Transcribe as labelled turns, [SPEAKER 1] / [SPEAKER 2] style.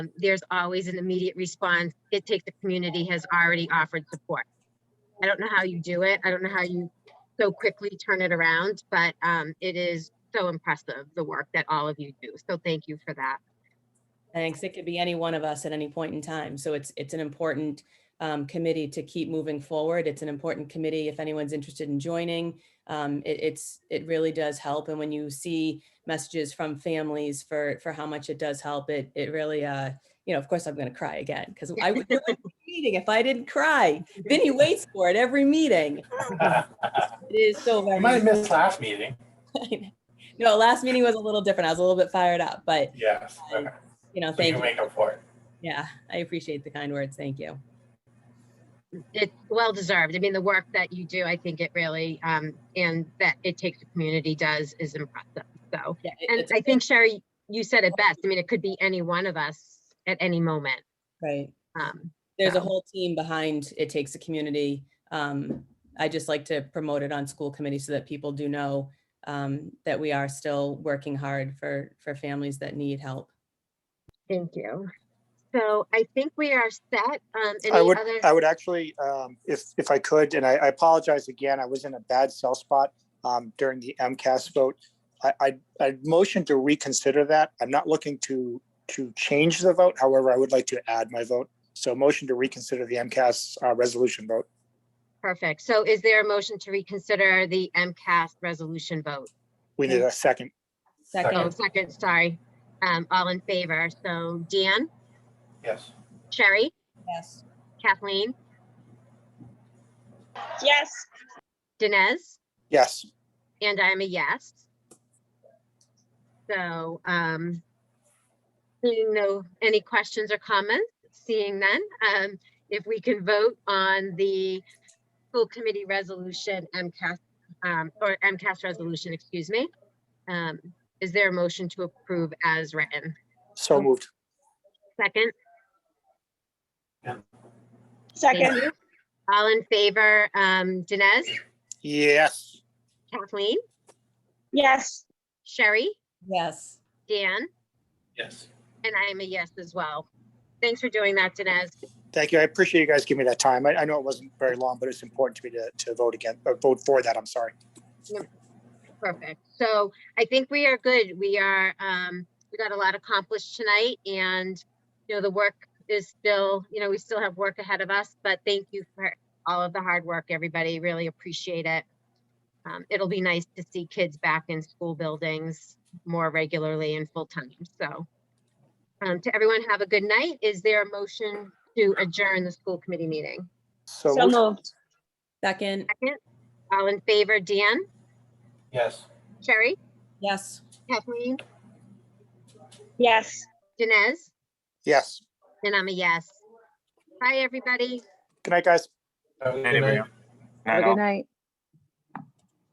[SPEAKER 1] Um, there's always an immediate response. It takes the community has already offered support. I don't know how you do it. I don't know how you so quickly turn it around, but um, it is so impressive the work that all of you do. So thank you for that.
[SPEAKER 2] Thanks. It could be any one of us at any point in time. So it's, it's an important um, committee to keep moving forward. It's an important committee if anyone's interested in joining. Um, It, it's, it really does help. And when you see messages from families for, for how much it does help, it, it really, uh, you know, of course, I'm going to cry again because I would not meeting if I didn't cry. Vinny waits for it every meeting. It is so
[SPEAKER 3] I
[SPEAKER 2] very.
[SPEAKER 3] might have missed last meeting.
[SPEAKER 2] No, last meeting was a little different. I was a little bit fired up, but,
[SPEAKER 3] Yes. okay.
[SPEAKER 2] you know,
[SPEAKER 3] So you
[SPEAKER 2] thank
[SPEAKER 3] can
[SPEAKER 2] you.
[SPEAKER 3] make up for it.
[SPEAKER 2] Yeah, I appreciate the kind words. Thank you.
[SPEAKER 1] It's well deserved. I mean, the work that you do, I think it really, um, and that it takes the community does is impressive. So,
[SPEAKER 2] Yeah, it-
[SPEAKER 1] and
[SPEAKER 2] it's-
[SPEAKER 1] I think Sherry, you said it best. I mean, it could be any one of us at any moment.
[SPEAKER 2] Right.
[SPEAKER 1] Um,
[SPEAKER 2] There's a
[SPEAKER 1] Yeah.
[SPEAKER 2] whole team behind It Takes a Community. Um, I just like to promote it on school committee so that people do know um, that we are still working hard for, for families that need help.
[SPEAKER 1] Thank you. So I think we are set. Um,
[SPEAKER 4] I
[SPEAKER 1] any
[SPEAKER 4] would,
[SPEAKER 1] other?
[SPEAKER 4] I would actually, um, if, if I could, and I, I apologize again, I was in a bad cell spot, um, during the MCAS vote. I, I, I motion to reconsider that. I'm not looking to, to change the vote. However, I would like to add my vote. So motion to reconsider the MCAS, uh, resolution vote.
[SPEAKER 1] Perfect. So is there a motion to reconsider the MCAS resolution vote?
[SPEAKER 4] We need a second.
[SPEAKER 1] Oh,
[SPEAKER 2] Second,
[SPEAKER 1] second, sorry. Um, all in favor. So Dan,
[SPEAKER 3] Yes.
[SPEAKER 1] Sherry,
[SPEAKER 2] yes,
[SPEAKER 1] Kathleen,
[SPEAKER 5] Yes,
[SPEAKER 1] Dinesh,
[SPEAKER 4] Yes.
[SPEAKER 1] and I'm a yes. So, um, seeing no, any questions or comments, seeing none, um, if we can vote on the full committee resolution MCAS, um, or MCAS resolution, excuse me. Um, is there a motion to approve as written?
[SPEAKER 4] So moved.
[SPEAKER 1] Second? Thank
[SPEAKER 5] second,
[SPEAKER 1] you. All in favor, um, Dinesh,
[SPEAKER 4] Yes.
[SPEAKER 1] Kathleen,
[SPEAKER 5] yes,
[SPEAKER 1] Sherry,
[SPEAKER 2] yes.
[SPEAKER 1] Dan,
[SPEAKER 3] Yes.
[SPEAKER 1] and I am a yes as well. Thanks for doing that, Dinesh.
[SPEAKER 4] Thank you. I appreciate you guys giving me that time. I, I know it wasn't very long, but it's important to me to, to vote again, uh, vote for that. I'm sorry.
[SPEAKER 1] Perfect. So I think we are good. We are, um, we got a lot accomplished tonight and, you know, the work is still, you know, we still have work ahead of us, but thank you for all of the hard work, everybody. Really appreciate it. Um, it'll be nice to see kids back in school buildings more regularly and full time. So, um, to everyone, have a good night. Is there a motion to adjourn the school committee meeting?
[SPEAKER 4] So
[SPEAKER 5] so
[SPEAKER 4] moved.
[SPEAKER 5] moved,
[SPEAKER 2] Second,
[SPEAKER 1] Second, all in favor, Dan,
[SPEAKER 3] Yes.
[SPEAKER 1] Sherry,
[SPEAKER 2] yes.
[SPEAKER 1] Kathleen,
[SPEAKER 5] yes.
[SPEAKER 1] Dinesh?
[SPEAKER 4] Yes.
[SPEAKER 1] And I'm a yes. Bye, everybody.
[SPEAKER 4] Good night, guys.
[SPEAKER 3] Have a good
[SPEAKER 6] Anyway,
[SPEAKER 3] night.
[SPEAKER 6] Have a good night.